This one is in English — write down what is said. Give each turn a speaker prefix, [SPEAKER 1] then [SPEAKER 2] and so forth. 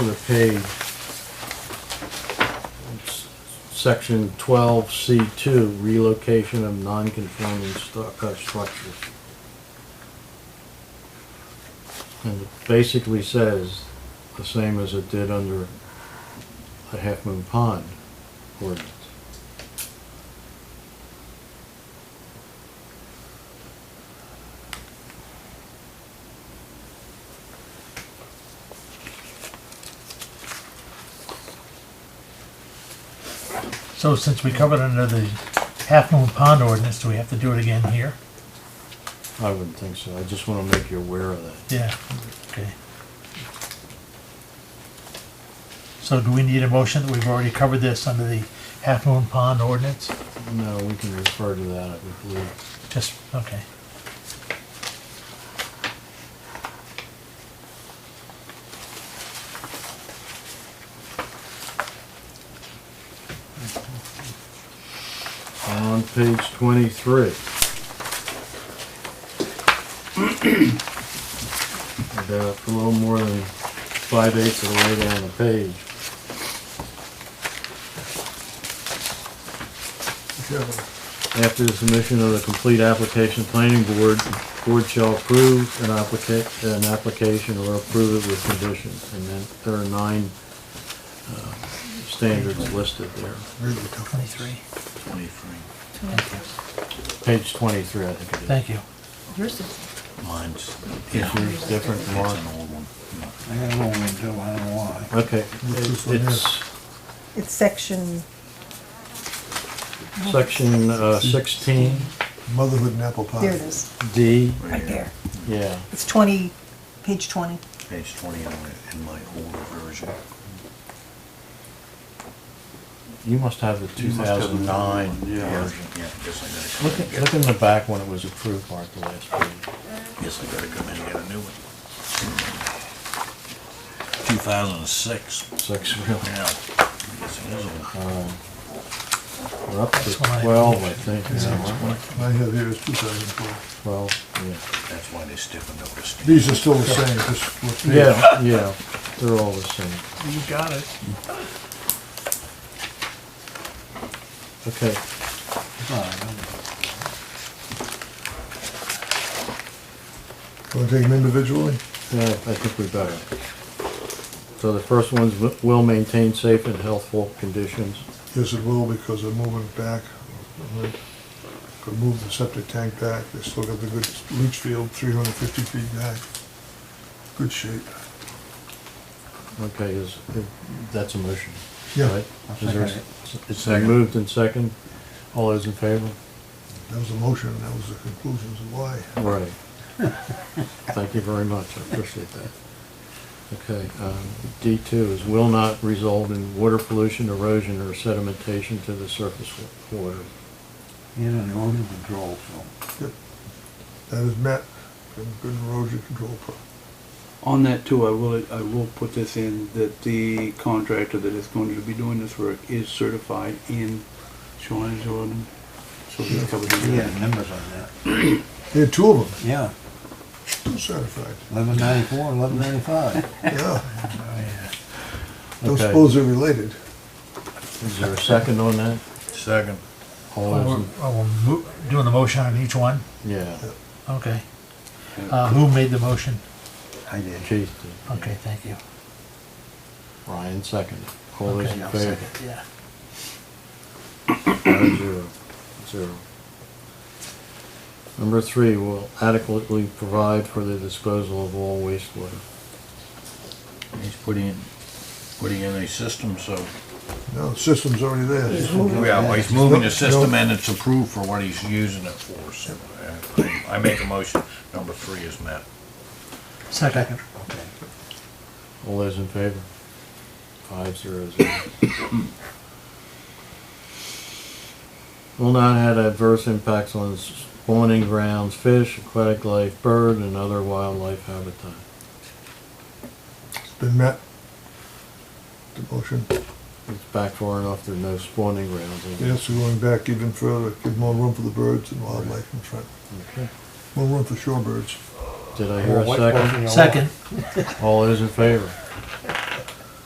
[SPEAKER 1] other page. It's Section twelve C two, relocation of non-conforming stu- uh, structures. And it basically says the same as it did under the Half Moon Pond ordinance.
[SPEAKER 2] So since we covered under the Half Moon Pond ordinance, do we have to do it again here?
[SPEAKER 1] I wouldn't think so. I just wanna make you aware of that.
[SPEAKER 2] Yeah, okay. So do we need a motion that we've already covered this under the Half Moon Pond ordinance?
[SPEAKER 1] No, we can refer to that, I would believe.
[SPEAKER 2] Just, okay.
[SPEAKER 1] On page twenty-three. About a little more than five eighths of the way down the page. After the submission of the complete application, planning board, board shall approve an applica, an application or approve it with conditions. And then there are nine, uh, standards listed there.
[SPEAKER 2] Twenty-three.
[SPEAKER 3] Twenty-three.
[SPEAKER 2] Thank you.
[SPEAKER 1] Page twenty-three, I think it is.
[SPEAKER 2] Thank you.
[SPEAKER 4] Yours is,
[SPEAKER 3] Mine's.
[SPEAKER 1] Is yours different
[SPEAKER 3] It's
[SPEAKER 1] from
[SPEAKER 3] an
[SPEAKER 1] ours?
[SPEAKER 3] old one.
[SPEAKER 5] I got an old one too, I don't know why.
[SPEAKER 1] Okay,
[SPEAKER 5] What's this one
[SPEAKER 1] it's
[SPEAKER 4] it's section,
[SPEAKER 1] section uh, sixteen
[SPEAKER 5] Motherhood and apple pie.
[SPEAKER 4] there it is,
[SPEAKER 1] D,
[SPEAKER 4] right there.
[SPEAKER 1] yeah.
[SPEAKER 4] It's 20, page 20.
[SPEAKER 3] Page twenty on it in my older version.
[SPEAKER 1] You must have the two
[SPEAKER 3] You must have
[SPEAKER 1] thousand
[SPEAKER 3] the
[SPEAKER 1] nine
[SPEAKER 3] old one. Yeah,
[SPEAKER 1] version.
[SPEAKER 3] yeah, guess I
[SPEAKER 1] Look,
[SPEAKER 3] gotta
[SPEAKER 1] at-
[SPEAKER 3] come,
[SPEAKER 1] look in the back when it was approved, Mark, the last page.
[SPEAKER 3] guess I gotta come in and get a new one. Two thousand and six.
[SPEAKER 1] Six, really.
[SPEAKER 3] Yeah. I guess it is old.
[SPEAKER 1] Um, We're up to
[SPEAKER 2] That's why I-
[SPEAKER 1] twelve, I think,
[SPEAKER 2] That's
[SPEAKER 1] now,
[SPEAKER 2] why I-
[SPEAKER 1] aren't
[SPEAKER 5] I have here is two thousand
[SPEAKER 1] we?
[SPEAKER 5] four.
[SPEAKER 1] twelve,
[SPEAKER 3] That's why they stiffened up the steel.
[SPEAKER 5] These are still the same, just what
[SPEAKER 1] yeah.
[SPEAKER 5] they.
[SPEAKER 1] Yeah, yeah, they're all the same.
[SPEAKER 2] You got it.
[SPEAKER 1] Okay,
[SPEAKER 5] Want to take them individually?
[SPEAKER 1] Yeah, I think we better. So the first one's wi- will maintain safe and healthful conditions.
[SPEAKER 5] Yes, it will, because they're moving it back. Could move the septic tank back, they still got the good leach field, three hundred fifty feet back. Good shape.
[SPEAKER 1] Okay, is, that's a motion.
[SPEAKER 5] Yeah.
[SPEAKER 1] right?
[SPEAKER 6] I'll
[SPEAKER 1] Is there-
[SPEAKER 6] second
[SPEAKER 1] It's been moved and second. All those in favor?
[SPEAKER 5] That was the motion, and that was the conclusions of why.
[SPEAKER 1] Right. Thank you very much, I appreciate that. Okay, um, D two is will not result in water pollution, erosion, or sedimentation to the surface wa- water.
[SPEAKER 6] And an erosion control, so.
[SPEAKER 5] Yep. That is met, Good- good erosion control. pro-
[SPEAKER 7] On that too, I will, I will put this in, that the contractor that is going to be doing this work is certified in Shoreline Zoning. So he's covered in
[SPEAKER 6] Yeah,
[SPEAKER 7] that.
[SPEAKER 6] numbers on that.
[SPEAKER 5] They had two of them,
[SPEAKER 6] Yeah,
[SPEAKER 5] two certified,
[SPEAKER 6] eleven ninety-four, eleven ninety-five.
[SPEAKER 5] Oh, yeah. Don't
[SPEAKER 1] Okay.
[SPEAKER 5] suppose they're related.
[SPEAKER 1] Is there a second on that?
[SPEAKER 3] Second.
[SPEAKER 1] All those,
[SPEAKER 2] Oh,
[SPEAKER 1] in-
[SPEAKER 2] we're- oh, we're mo- doing a motion on each one?
[SPEAKER 1] yeah,
[SPEAKER 2] Okay. Uh, who made the motion?
[SPEAKER 6] I did.
[SPEAKER 1] Keith did.
[SPEAKER 2] Okay, thank you.
[SPEAKER 1] Ryan seconded. All those
[SPEAKER 2] Okay,
[SPEAKER 1] in
[SPEAKER 2] I'll
[SPEAKER 1] favor?
[SPEAKER 2] second, Yeah.
[SPEAKER 1] Five zero, zero. Number three, will adequately provide for the disposal of all wastewater.
[SPEAKER 3] He's putting in, putting in a system, so.
[SPEAKER 5] No, the system's already there.
[SPEAKER 3] Yeah, well, he's moving the
[SPEAKER 5] Nope,
[SPEAKER 3] system
[SPEAKER 5] nope.
[SPEAKER 3] and it's approved for what he's using it for, so uh, I I make a motion, number three is met.
[SPEAKER 2] Second.
[SPEAKER 6] Okay.
[SPEAKER 1] All those in favor? Five zero zero. Will not have adverse impacts on spawning grounds, fish, aquatic life, bird, and other wildlife habitat.
[SPEAKER 5] It's been met. The motion,
[SPEAKER 1] It's back far enough, there are no spawning grounds. is it?
[SPEAKER 5] yes, we're going back even further, give more room for the birds and wildlife in front,
[SPEAKER 1] Okay.
[SPEAKER 5] more room for shorebirds.
[SPEAKER 1] Did I hear a second?
[SPEAKER 2] Second.
[SPEAKER 1] All those in favor?